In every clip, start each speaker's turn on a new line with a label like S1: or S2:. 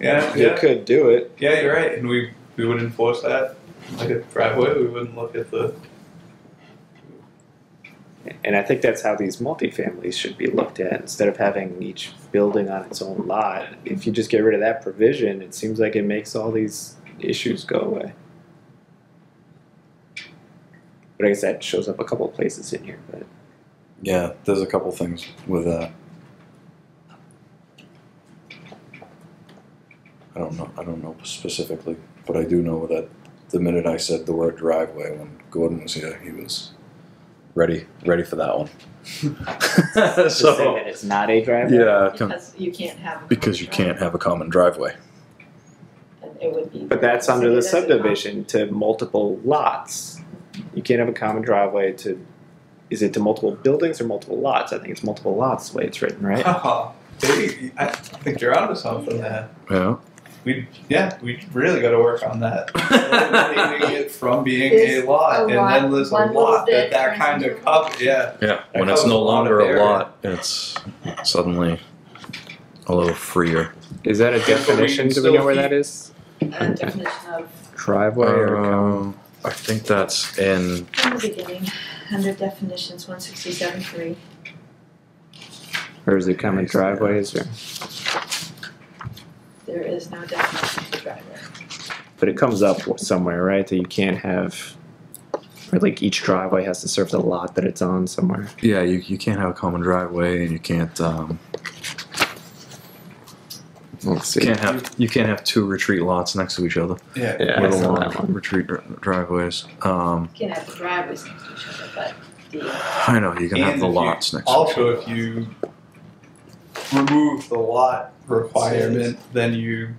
S1: Yeah,
S2: You
S1: yeah,
S2: could do it.
S1: yeah. You're right, and we we would enforce that like a driveway. We wouldn't look at the
S3: And I think that's how these multifamilies should be looked at. Instead of having each building on its own lot, if you just get rid of that provision, it seems like it makes all these issues go away. But I guess that shows up a couple places in here. But
S4: Yeah, there's a couple things with that. I don't know. I don't know specifically, but I do know that the minute I said the word driveway when Gordon was here, he was ready, ready for that one.
S3: to say
S4: so
S3: that it's not a driveway.
S4: yeah, com-
S5: Because you can't have.
S4: because you can't have a common driveway.
S5: And It would be.
S3: But that's under the
S5: That's a-
S3: subdivision to multiple lots. You can't have a common driveway to. Is it to multiple buildings or multiple lots? I think it's multiple lots the way it's written, right?
S1: Oh, baby, I think you're onto something there.
S4: Yeah.
S1: We yeah, we really got to work on that. Eliminating it from being a
S5: There's
S1: lot,
S5: a
S1: and
S5: lot-
S1: then there's a
S5: one little
S1: lot that
S5: bit
S1: that
S5: turns
S1: kind of
S5: into a lot.
S1: cup. Yeah,
S4: Yeah.
S1: That
S4: When it's
S1: covers a
S4: no
S1: lot
S4: longer
S1: of
S4: a
S1: area.
S4: lot, it's suddenly a little freer.
S3: Is that a
S1: but we
S3: definition?
S1: can
S3: Do we know
S1: still
S3: where that
S1: keep-
S3: is?
S5: A definition of,
S3: Driveway or common?
S4: Um, I think that's in.
S5: from the beginning, under definitions, one sixty-seven three.
S3: Or is it common driveways or,
S5: There is no definition for driveway.
S3: but it comes up somewhere, right? That you can't have, or like each driveway has to serve the lot that it's on somewhere.
S4: Yeah, you, you can't have a common driveway, and you can't um,
S3: Let's see.
S4: you can't have you can't have two retreat lots next to each other.
S1: yeah.
S3: Yeah, I
S4: little
S3: saw
S4: long
S3: that one.
S4: retreat dr- driveways. Um,
S5: You can have the driveways next to each other, but the,
S4: I know you can have
S1: And
S4: the
S1: if you-
S4: lots next. to each
S1: Also,
S4: other.
S1: if you remove the lot requirement, then you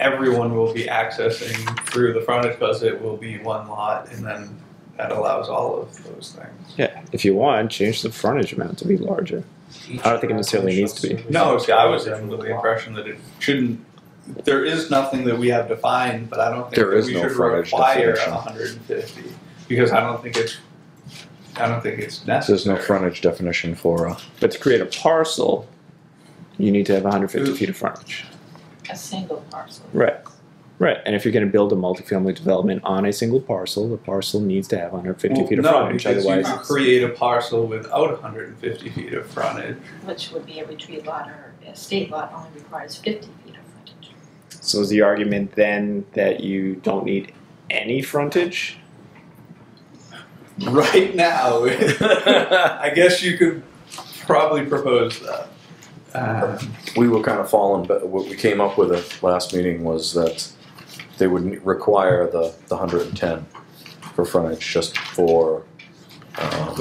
S1: everyone will be accessing through the frontage because it will be one lot, and then that allows all of those things.
S3: Yeah, if you want, change the frontage amount to be larger. I don't think it necessarily needs to be.
S1: No, see, I was under the impression that it shouldn't. There is nothing that we have defined, but I don't think
S4: There
S1: that
S4: is
S1: we
S4: no
S1: should
S4: frontage
S1: require
S4: definition.
S1: 150 because I don't think it's. I don't think it's necessary.
S4: there's no frontage definition for a
S3: But to create a parcel, you need to have 150
S1: Ooh.
S3: feet of frontage.
S5: a single parcel.
S3: Right. Right, and if you're going to build a multifamily development on a single parcel, the parcel needs to have 150
S1: Well,
S3: feet of
S1: no,
S3: frontage.
S1: because
S3: Otherwise,
S1: you could
S3: it's-
S1: create a parcel without 150 feet of frontage.
S5: which would be a retreat lot or a state lot only requires fifty feet of frontage.
S3: So is the argument then that you don't need any frontage?
S1: Right now, I guess you could probably propose that. Um,
S4: we were kind of falling but what we came up with at last meeting was that they would n- require the, the 110 for frontage just for um,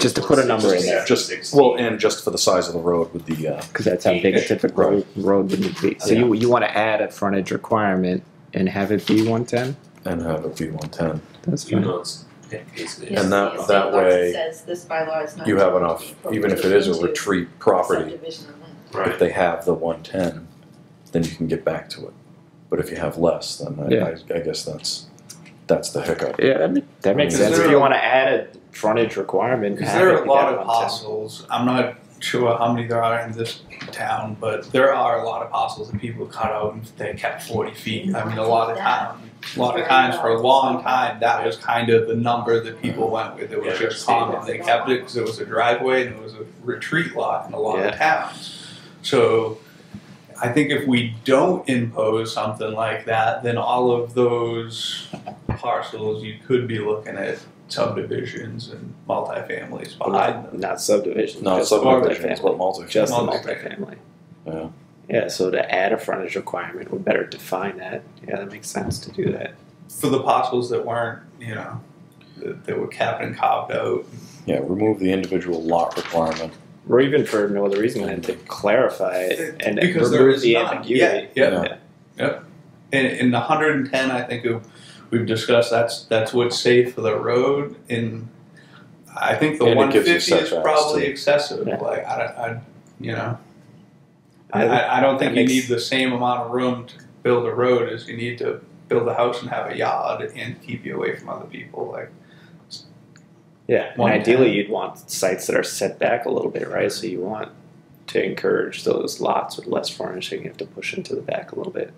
S3: Just to put a number in there,
S4: just well and just for the size of the road with the uh,
S3: because that's how big a typical road, road would need to be. So you you want to add a frontage requirement and have it be 110?
S4: and have it be 110
S3: That's
S6: You
S3: fine.
S6: know, it's basically.
S5: Yes,
S4: And that-
S5: the
S4: that
S5: state law
S4: way,
S5: Says this bylaw is not.
S4: you have
S5: to
S4: enough
S5: be incorporated
S4: even if it is a
S5: into
S4: retreat property
S5: subdivision of land.
S6: Right.
S4: if they have the 110, then you can get back to it. But if you have less, then I,
S3: Yeah.
S4: I, I guess that's that's the hiccup.
S3: Yeah, that, ma- that makes
S4: Is
S3: sense.
S1: there
S3: If you
S1: a-
S3: want to add a frontage requirement,
S1: Because
S3: have
S1: there
S3: it
S1: are
S3: be
S1: a lot
S3: that
S1: of
S3: 110.
S1: parcels. I'm not sure how many there are in this town, but there are a lot of parcels that people cut out and they kept 40 feet. I mean, a lot of time, a lot of times for a long time, that was kind of the number that people went with. It was
S6: Yeah.
S1: just common. They kept it because it was a driveway and it was a retreat lot in a lot
S3: Yeah.
S1: of towns. So I think if we don't impose something like that, then all of those parcels, you could be looking at subdivisions and multifamilies
S3: Well,
S1: behind
S3: not,
S1: them.
S3: not subdivision.
S4: No,
S3: just
S4: subdivision is
S3: multifamily.
S4: what multi.
S3: Just the
S1: Multifamily.
S3: multifamily.
S4: Yeah.
S3: Yeah, so to add a frontage requirement would better define that. Yeah, that makes sense to do that.
S1: For the parcels that weren't, you know, that, that were capped and carved out.
S4: Yeah, remove the individual lot requirement.
S3: Or even for no other reason than to clarify it and
S1: Because there
S3: remove
S1: is
S3: the
S1: none.
S3: ambiguity.
S1: Yeah, yeah.
S4: Yeah.
S1: And in the 110, I think of- we've discussed that's that's what's safe for the road. And I think the
S4: And it gives you
S1: 150 is
S4: setbacks,
S1: probably
S4: too.
S1: excessive.
S3: Yeah.
S1: Like I, don't- I, you know,
S3: I
S1: I,
S3: think
S1: I, I don't think
S3: that
S1: you
S3: makes-
S1: need the same amount of room to build a road as you need to build a house and have a yard and keep you away from other people. Like
S3: Yeah, and
S1: One
S3: ideally
S1: time.
S3: you'd want sites that are set back a little bit, right? So you want to encourage those lots with less furnishing, you have to push into the back a little bit.